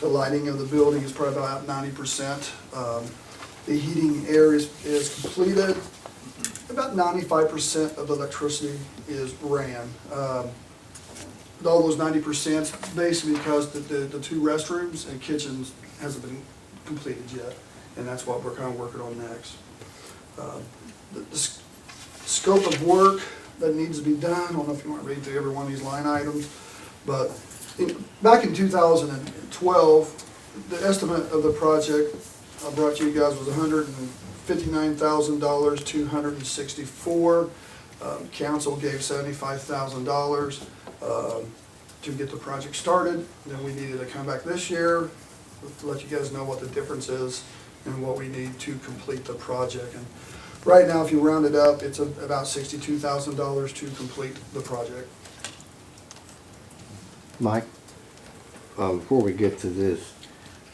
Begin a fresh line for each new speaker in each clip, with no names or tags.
The lighting of the building is probably about ninety percent. Um, The heating air is, is completed. About ninety-five percent of the electricity is ran. Um, All those ninety percent, basically because the, the, the two restrooms and kitchens hasn't been completed yet, and that's what we're kind of working on next. Um, The, the s- scope of work that needs to be done, I don't know if you want to read through every one of these line items, but in- back in two thousand and twelve, the estimate of the project I brought to you guys was hundred and fifty-nine thousand dollars, two hundred and sixty-four. Um, council gave seventy-five thousand dollars, um, to get the project started. Then we needed to come back this year to let you guys know what the difference is and what we need to complete the project. And right now, if you round it up, it's a- about sixty-two thousand dollars to complete the project.
Mike, uh, before we get to this,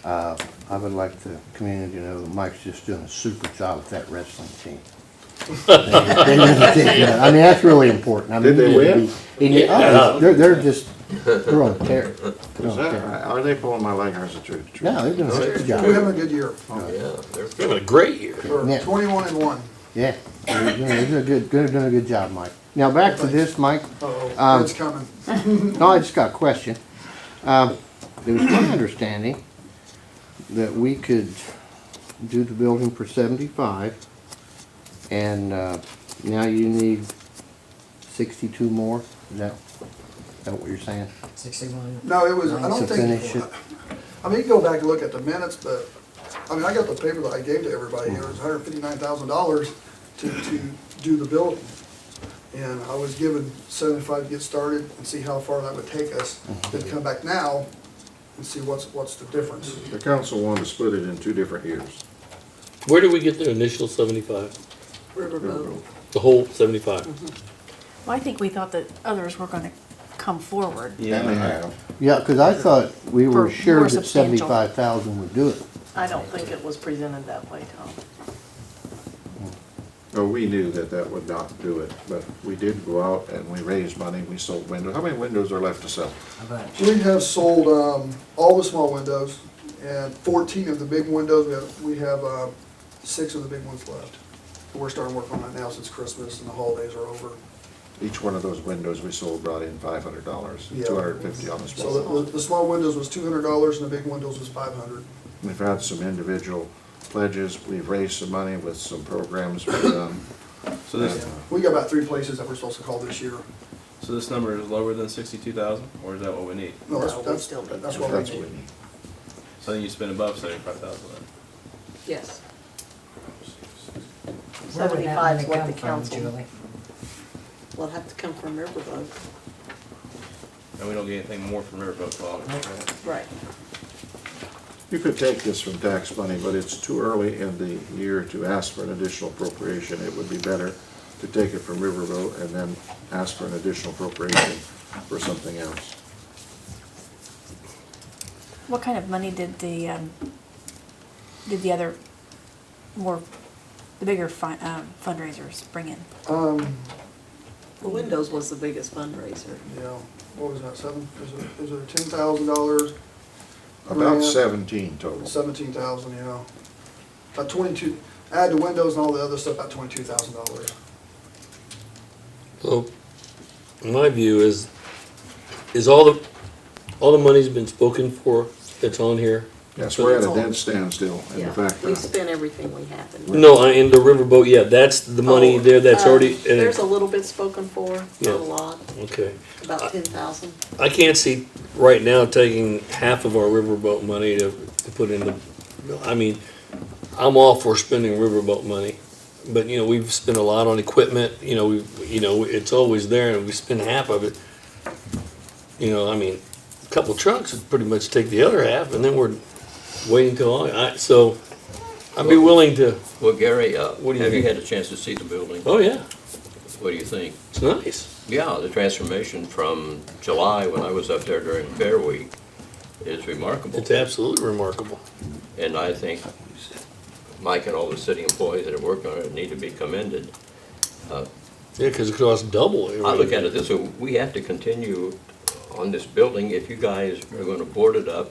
uh, I would like to commend, you know, Mike's just doing a super job with that wrestling team. They really did, man. I mean, that's really important. I mean,
Did they
you need to
win?
be- you need- oh, They're, they're just, they're on a tear. They're on
Is
a
that,
tear.
are they pulling my leg or is it true? true?
No, they're doing a super
We're having
job.
a good year.
Yeah, they're having a great year.
We're
Yeah.
twenty-one and one.
Yeah, they're doing, they're doing a good, they're doing a good job, Mike. Now, back to this, Mike.
Uh-oh,
Um,
it's coming.
No, I just got a question. Um, It was my understanding that we could do the building for seventy-five, and uh, now you need sixty-two more? Is that, is that what you're saying?
Sixty-one.
No, it was, I don't
To finish
think,
it?
I mean, you go back and look at the minutes, but, I mean, I got the paper that I gave to everybody, it was hundred fifty-nine thousand dollars to, to do the building. And I was given seventy-five to get started and see how far that would take us,
Mm-hmm.
then come back now and see what's, what's the difference.
The council wanted to split it in two different years.
Where did we get the initial seventy-five?
Oh.
Riverboat.
The whole seventy-five?
Mm-hmm.
Well, I think we thought that others were gonna come forward.
And they have.
Yeah, because I thought we
For
were
more
sure that
substantial.
seventy-five thousand would do it.
I don't think it was presented that way, Tom.
Oh, we knew that that would not do it, but we did go out and we raised money, we sold windows. How many windows are left to sell?
We have sold, um, all the small windows and fourteen of the big windows, we have, we have, uh, six of the big ones left. We're starting work on that now since Christmas and the holidays are over.
Each one of those windows we sold brought in five hundred dollars,
Yeah.
two hundred and fifty on the small.
So the, the small windows was two hundred dollars and the big windows was five hundred.
We've had some individual pledges, we've raised some money with some programs we've done.
So this,
We got about three places that we're supposed to call this year.
so this number is lower than sixty-two thousand, or is that what we need?
No,
No, we
that's,
still
that's,
need
that's
If
what
That's
we
what
need.
we need.
So then you spend above seventy-five thousand then.
Yes.
Where would that
75
money
is what
come
the
from,
council
Julie?
will have to come from Riverboat.
And we don't get anything more from Riverboat Hall.
Right.
You could take this from tax money, but it's too early in the year to ask for an additional appropriation. It would be better to take it from Riverboat and then ask for an additional appropriation for something else.
What kind of money did the, um, did the other more, the bigger fi- um, fundraisers bring in?
Um,
The windows was the biggest fundraiser.
yeah, what was that, seven, is it, is it ten thousand dollars,
About
Yeah.
seventeen total.
seventeen thousand, you know? About twenty-two, add the windows and all the other stuff, about twenty-two thousand dollars.
Well, my view is, is all the, all the money's been spoken for that's on here?
Yes, we're at
It's all-
a dead standstill in the
Yeah.
fact uh,
We
that
spent everything we had. and-
No, I, in the riverboat, yeah, that's the money
Oh,
there that's
uh,
already, and
There's
it-
a little bit spoken for, not
Yeah.
a lot,
okay.
about 10,000.
I can't see right now taking half of our riverboat money to, to put in the, I mean, I'm all for spending riverboat money. But, you know, we've spent a lot on equipment, you know, we, you know, it's always there and we spend half of it. You know, I mean, a couple trucks would pretty much take the other half and then we're waiting till, August. I, so I'd be willing to,
Well, Gary, uh,
What do you
have you
think?
had a chance to see the building?
oh yeah,
What do you think?
it's nice.
Yeah, the transformation from July, when I was up there during Fair Week, is remarkable.
It's absolutely remarkable.
And I think Mike and all the city employees that have worked on it need to be commended.
Yeah, cause it costs double.
I look at it this way, we have to continue on this building if you guys are gonna board it up